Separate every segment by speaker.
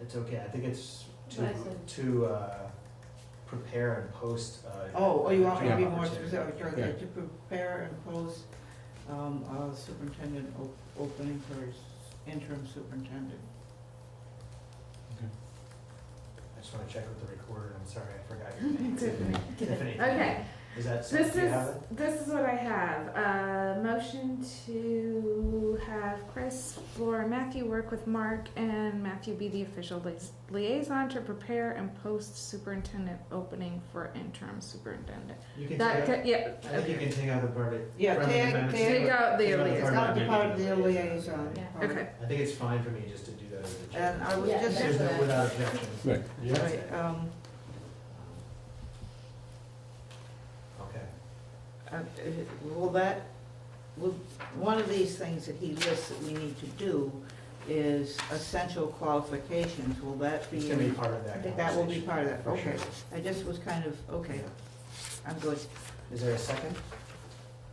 Speaker 1: It's okay, I think it's to,
Speaker 2: Lesson.
Speaker 1: to, uh, prepare and post, uh.
Speaker 3: Oh, oh, you want me to be
Speaker 1: job
Speaker 3: more
Speaker 1: opportunity.
Speaker 3: specific, Sure,
Speaker 4: Yeah.
Speaker 3: to prepare and post, um, a superintendent op- opening for s- interim superintendent.
Speaker 1: I just wanna check with the recorder, I'm sorry, I forgot your name. Tiffany.
Speaker 2: Okay,
Speaker 1: Is that, so-
Speaker 2: this
Speaker 1: do you
Speaker 2: is,
Speaker 1: have it?
Speaker 2: this is what I have. Uh, motion to have Chris, Laura, and Matthew work with Mark and Matthew be the official lis- liaison to prepare and post superintendent opening for interim superintendent.
Speaker 1: You can
Speaker 2: That,
Speaker 1: take out-
Speaker 2: ca- yeah,
Speaker 1: I think you can take out the permit.
Speaker 3: Yeah,
Speaker 1: friendly
Speaker 3: take-
Speaker 1: amendments
Speaker 3: take-
Speaker 1: to it.
Speaker 2: take out the
Speaker 1: Take out the
Speaker 3: It's
Speaker 2: liaison.
Speaker 3: not the
Speaker 1: Part
Speaker 3: part
Speaker 1: of
Speaker 3: of the liaison.
Speaker 2: Yeah,
Speaker 3: part.
Speaker 2: okay.
Speaker 1: I think it's fine for me just to do that as a.
Speaker 3: And I was
Speaker 2: Yeah,
Speaker 3: just.
Speaker 1: There's no,
Speaker 2: that's-
Speaker 1: without objection.
Speaker 4: Right.
Speaker 1: That's
Speaker 3: Right,
Speaker 1: it.
Speaker 3: um,
Speaker 1: Okay,
Speaker 3: uh, uh, will that, will, one of these things that he lists that we need to do is essential qualifications, will that
Speaker 1: it's
Speaker 3: be?
Speaker 1: gonna be part of that
Speaker 3: in- That will be
Speaker 1: conversation.
Speaker 3: part of that,
Speaker 1: For sure.
Speaker 3: okay. I just was kind of, okay, I'm good.
Speaker 1: Is there a second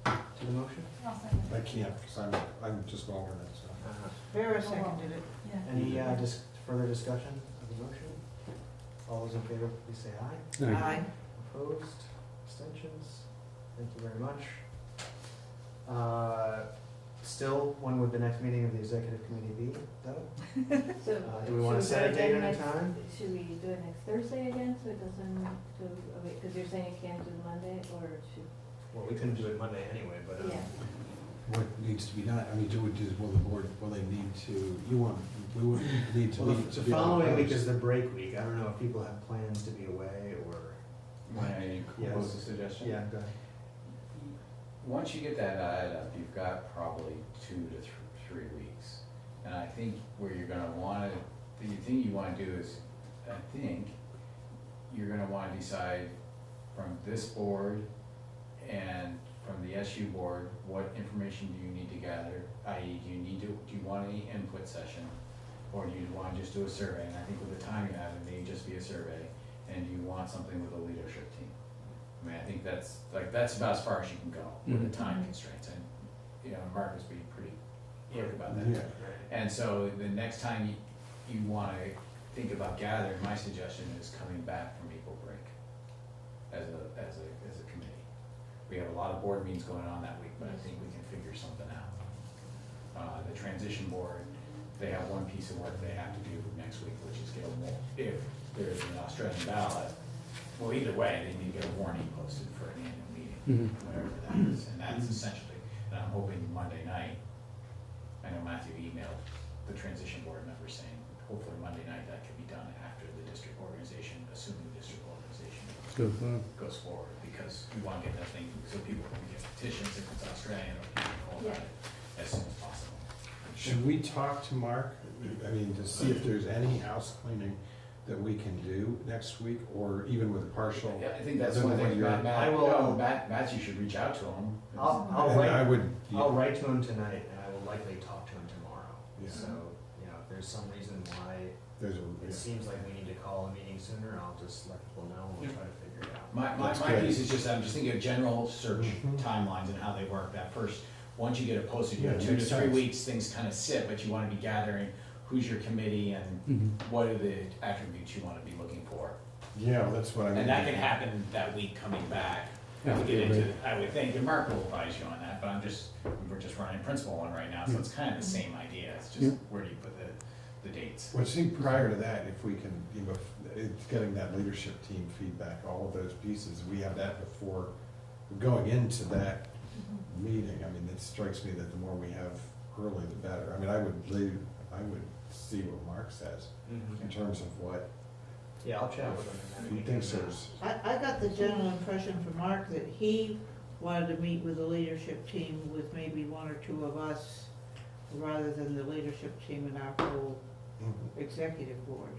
Speaker 1: to the motion?
Speaker 4: I can't, because I'm, I'm just going with it, so.
Speaker 1: Uh,
Speaker 3: Vera seconded it.
Speaker 1: Any uh, dis- further discussion of the motion? All those in favor, please say aye.
Speaker 3: Aye.
Speaker 1: Opposed, abstentions? Thank you very much. Uh, Still, when would the next meeting of the executive committee be, though?
Speaker 5: So,
Speaker 1: Uh, Do we want to set a date and a time?
Speaker 5: should we do it next Thursday again, so it doesn't go, oh wait, because you're saying it can't do Monday, or should?
Speaker 1: Well, we couldn't do it Monday anyway, but. uh,
Speaker 5: Yeah.
Speaker 4: What needs to be done, I mean, do we, do, will the board, will they need to, you want, we would need to.
Speaker 1: Well,
Speaker 4: meet
Speaker 1: the
Speaker 4: to
Speaker 1: the
Speaker 4: be able to
Speaker 1: following week
Speaker 4: post.
Speaker 1: is the break week. I don't know if people have plans to be away or.
Speaker 6: May I propose a
Speaker 1: Yes.
Speaker 6: suggestion?
Speaker 1: go ahead.
Speaker 6: Once you get that added up, you've got probably two to th- three weeks. And I think where you're gonna wanna, the thing you wanna do is, I think, you're gonna wanna decide from this board and from the SU board, what information do you need to gather? I.e., do you need to, do you want any input session? Or do you wanna just do a survey? And I think with the time you have, it may just be a survey. And do you want something with a leadership team? I mean, I think that's, like, that's about as far as you can go with the time constraints, and, you know, Mark was being pretty clear about that.
Speaker 4: Yeah,
Speaker 6: And so the next time you, you wanna think about gathering, my suggestion is coming back from April break as a, as a, as a committee. We have a lot of board meetings going on that week, but I think we can figure something out. Uh, the transition board, they have one piece of work they have to do next week, which is get a warrant. If there's an Australian ballot, well, either way, they need to get a warning posted for an annual meeting, whatever that is. And that's essentially, and I'm hoping Monday night, I know Matthew emailed the transition board member saying, hopefully Monday night that can be done after the district organization, assuming the district organization goes forward, because we want to get that thing, so people can get petitions if it's Australian or people know about it as soon as possible.
Speaker 4: Should we talk to Mark, I mean, to see if there's any house cleaning that we can do next week, or even with a partial?
Speaker 6: Yeah, I think that's
Speaker 4: then
Speaker 6: one thing,
Speaker 4: you're-
Speaker 6: Matt, Matt,
Speaker 1: I will-
Speaker 6: no, Matt, Matt, you should reach out to him.
Speaker 1: I'll, I'll
Speaker 4: And I
Speaker 1: write,
Speaker 4: would,
Speaker 1: I'll write to him tonight and I will likely talk to him tomorrow.
Speaker 4: Yeah.
Speaker 1: So, you know, if there's some reason why
Speaker 4: there's a,
Speaker 1: it seems like we need to call a meeting sooner, I'll just let people know and we'll try to figure it out.
Speaker 6: My, my,
Speaker 4: That's
Speaker 6: my
Speaker 4: good. Mm-hmm.
Speaker 6: piece is just, I'm just thinking of general search timelines and how they work, that first, once you get it posted, you have
Speaker 4: Yeah,
Speaker 6: two to
Speaker 4: makes
Speaker 6: three
Speaker 4: sense.
Speaker 6: weeks, things kind of sit, but you want to be gathering who's your committee and
Speaker 4: Mm-hmm.
Speaker 6: what are the attributes you want to be looking for.
Speaker 4: yeah, well, that's what I mean.
Speaker 6: And that can happen that week coming back,
Speaker 4: Yeah.
Speaker 6: to get into, I would think, and Mark will advise you on that, but I'm just, we're just running principle one right now, so it's kind of the same idea, it's
Speaker 4: Yeah.
Speaker 6: just where do you put the, the dates?
Speaker 4: Well, I think prior to that, if we can, you know, if- it's getting that leadership team feedback, all of those pieces, we have that before going into that meeting. I mean, it strikes me that the more we have early, the better. I mean, I would leave, I would see what Mark says in terms of what
Speaker 1: Mm-hmm. Yeah, I'll chat with him. and then
Speaker 4: he
Speaker 1: we
Speaker 4: thinks
Speaker 1: can, uh,
Speaker 4: there's.
Speaker 3: I, I got the general impression from Mark that he wanted to meet with the leadership team with maybe one or two of us rather than the leadership team and our whole executive board.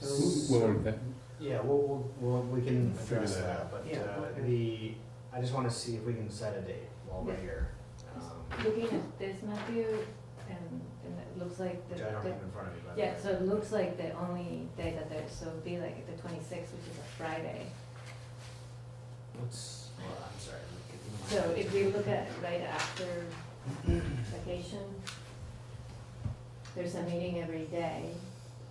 Speaker 4: Hmm.
Speaker 3: So,
Speaker 1: uh, Yeah, we'll, we'll, we'll, we can
Speaker 4: Figure
Speaker 1: address
Speaker 4: that
Speaker 1: that,
Speaker 4: out.
Speaker 1: but,
Speaker 3: Yeah, okay.
Speaker 1: uh, the, I just wanna see if we can set a date while we're
Speaker 5: Yeah.
Speaker 1: here. um,
Speaker 5: Looking at, there's Matthew, and, and it looks like the,
Speaker 1: Which I don't
Speaker 5: the-
Speaker 1: have in front of me, but.
Speaker 5: yeah, so it looks like the only day that there's, so it'd be like the twenty-sixth, which is a Friday.
Speaker 1: Let's, well, I'm sorry. we
Speaker 5: So
Speaker 1: could-
Speaker 5: if we look at right after vacation, there's a meeting every day,